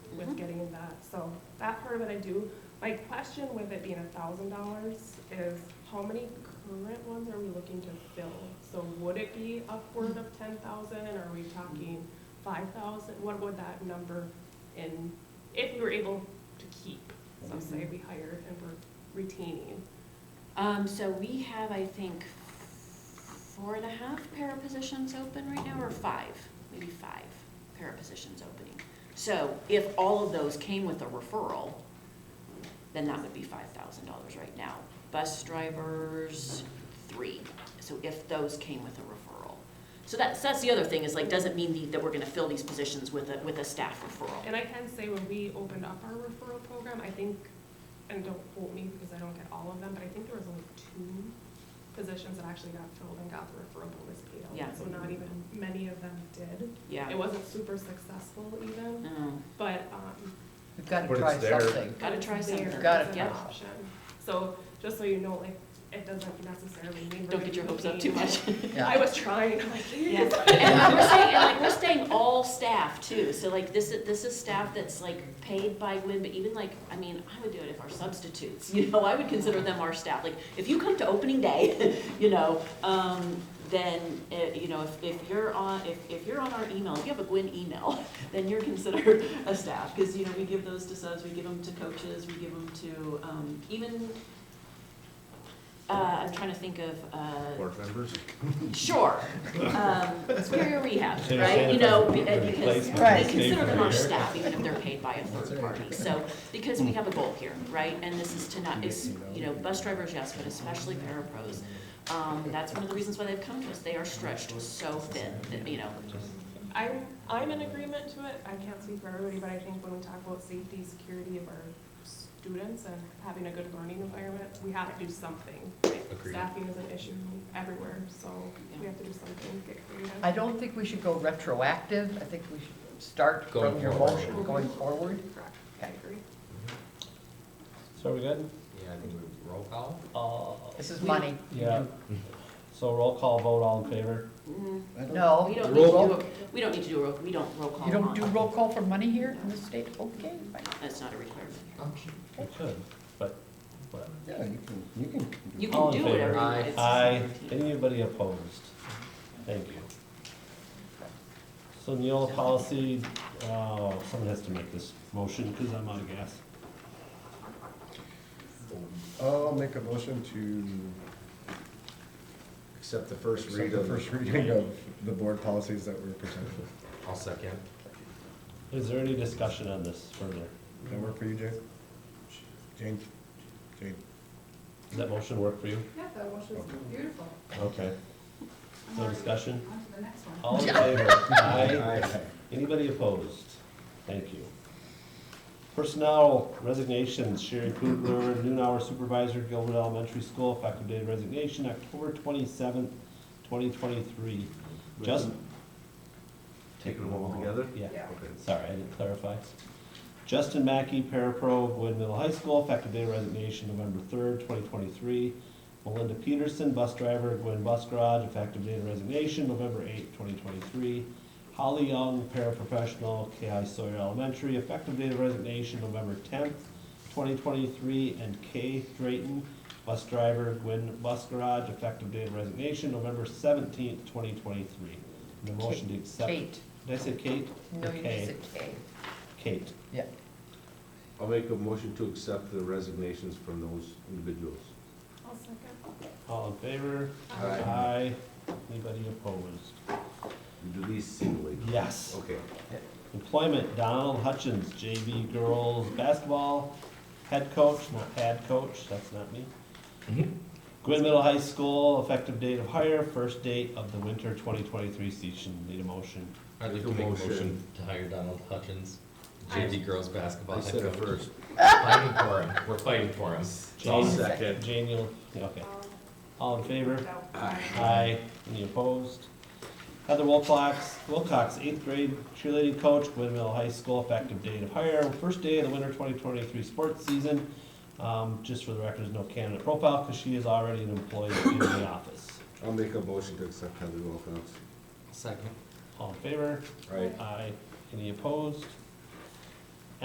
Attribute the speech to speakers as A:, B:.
A: So that part of it I do. My question with it being a thousand dollars is how many current ones are we looking to fill? So would it be upward of ten thousand and are we talking five thousand? What would that number in, if we were able to keep, so say we hired and we're retaining?
B: Um, so we have, I think, four and a half para positions open right now, or five, maybe five para positions opening. So if all of those came with a referral, then that would be five thousand dollars right now. Bus drivers, three, so if those came with a referral. So that's, that's the other thing, is like, doesn't mean the- that we're gonna fill these positions with a, with a staff referral.
A: And I can say when we opened up our referral program, I think, and don't quote me because I don't get all of them, but I think there was only two positions that actually got filled and got the referral bonus paid out.
B: Yeah.
A: So not even many of them did. It
B: Yeah.
A: wasn't super successful even,
B: No.
A: but, um,
C: We've got to
D: But
C: try
D: it's there.
C: something.
B: Gotta try
A: it's there
B: something.
C: Gotta
A: as an
C: try
A: option. So just so you know, like, it doesn't necessarily mean. we're
B: Don't
A: gonna
B: get your
A: be
B: hopes up
A: paid.
B: too much.
A: I
C: Yeah.
A: was trying, I'm like,
B: Yeah, and we're staying, and like, we're staying all staff too, so like, this is, this is staff that's like paid by Gwin, but even like, I mean, I would do it if our substitutes, you know, I would consider them our staff, like, if you come to opening day, you know, um, then, uh, you know, if, if you're on, if, if you're on our email, if you have a Gwin email, then you're considered a staff, cause you know, we give those to subs, we give them to coaches, we give them to, um, even, uh, I'm trying to think of, uh,
D: Board members?
B: Sure, um, superior rehab,
E: It's
B: right, you know, be- uh,
E: understandable if
B: because
E: the
B: they
C: Right.
E: replacement
B: consider them our
E: is named
B: staff, even if they're paid by a third party, so, because we have a goal here, right? And this is to not, is, you know, bus drivers, yes, but especially parapros, um, that's one of the reasons why they've come to us, they are stretched so thin, that, you know,
A: I'm, I'm in agreement to it, I can't speak for everybody, but I think when we talk about safety, security of our students and having a good learning environment, we have to do something.
D: Agreed.
A: Staffing is an issue everywhere, so we have to do something, get creative.
C: I don't think we should go retroactive. I think we should start from
D: Going
C: your
D: forward.
C: motion going forward.
A: Correct, I agree.
E: So are we good?
D: Yeah, I think we roll call.
E: Uh,
C: This is
B: We-
C: money.
E: yeah. So roll call vote, all in favor?
B: mm,
C: No.
B: we don't need to
C: Roll-
B: do, a- we don't need to do a roll, we don't roll call
C: You don't do
B: on,
C: roll call for money here in the state? Okay, fine.
B: that's not a requirement.
E: We could, but whatever.
F: Yeah, you can, you can.
B: You
E: All
B: can
E: in
B: do
E: favor?
B: whatever you
D: Aye.
B: want. It's just
E: Aye.
B: routine.
E: Anybody opposed? Thank you. So Neola policy, uh, someone has to make this motion because I'm out of gas.
F: I'll make a motion to
D: Accept the first
F: accept
D: read
F: the
D: of.
F: first reading of the board policies that were presented.
D: I'll second.
E: Is there any discussion on this further?
F: Does that work for you, Jane? Jane? Jane?
E: Does that motion work for you?
G: Yeah, that was just beautiful.
E: Okay. No discussion?
G: On to the next one.
E: All in favor? Aye.
F: Aye.
E: Anybody opposed? Thank you. Personnel resignations, Sherry Kugler, noon hour supervisor, Gilbert Elementary School, effective date of resignation, October twenty-seventh, twenty twenty-three. Justin?
D: Take them all together?
E: Yeah,
G: Yeah.
E: sorry, I didn't clarify. Justin Mackey, parapro, Wood Middle High School, effective date of resignation, November third, twenty twenty-three. Melinda Peterson, bus driver, Gwin Bus Garage, effective date of resignation, November eighth, twenty twenty-three. Holly Young, paraprofessional, KI Sawyer Elementary, effective date of resignation, November tenth, twenty twenty-three, and Kay Drayton, bus driver, Gwin Bus Garage, effective date of resignation, November seventeenth, twenty twenty-three. The motion to accept.
C: Kate.
E: Did I say Kate?
C: No, you
E: Okay.
C: just said Kate.
E: Kate.
C: Yeah.
H: I'll make a motion to accept the resignations from those individuals.
A: I'll second.
E: All in favor?
H: Aye.
E: Anybody opposed?
H: You do these singly.
E: Yes.
H: Okay.
E: Employment, Donald Hutchins, JV girls basketball, head coach, not head coach, that's not me. Mm-hmm. Gwin Middle High School, effective date of hire, first date of the winter twenty twenty-three season. Need a motion?
I: I'd like to
H: Make a
I: make a
H: motion.
I: motion to hire Donald Hutchins, JV girls basketball
H: I
I: head
H: said it
I: coach.
H: first.
I: Fighting for him, we're fighting for him.
H: I'll
E: Jane-
H: second.
E: Jane, you'll, yeah, okay. All in favor?
A: um, No.
E: Aye. Any opposed? Heather Wilcox, Wilcox, eighth grade cheerleading coach, Windmill High School, effective date of hire, first day of the winter twenty twenty-three sports season. Um, just for the record, there's no candidate profile, because she is already an employee in the office.
H: I'll make a motion to accept Heather Wilcox.
I: Second.
E: All in favor?
H: Right.
E: Aye. Any opposed?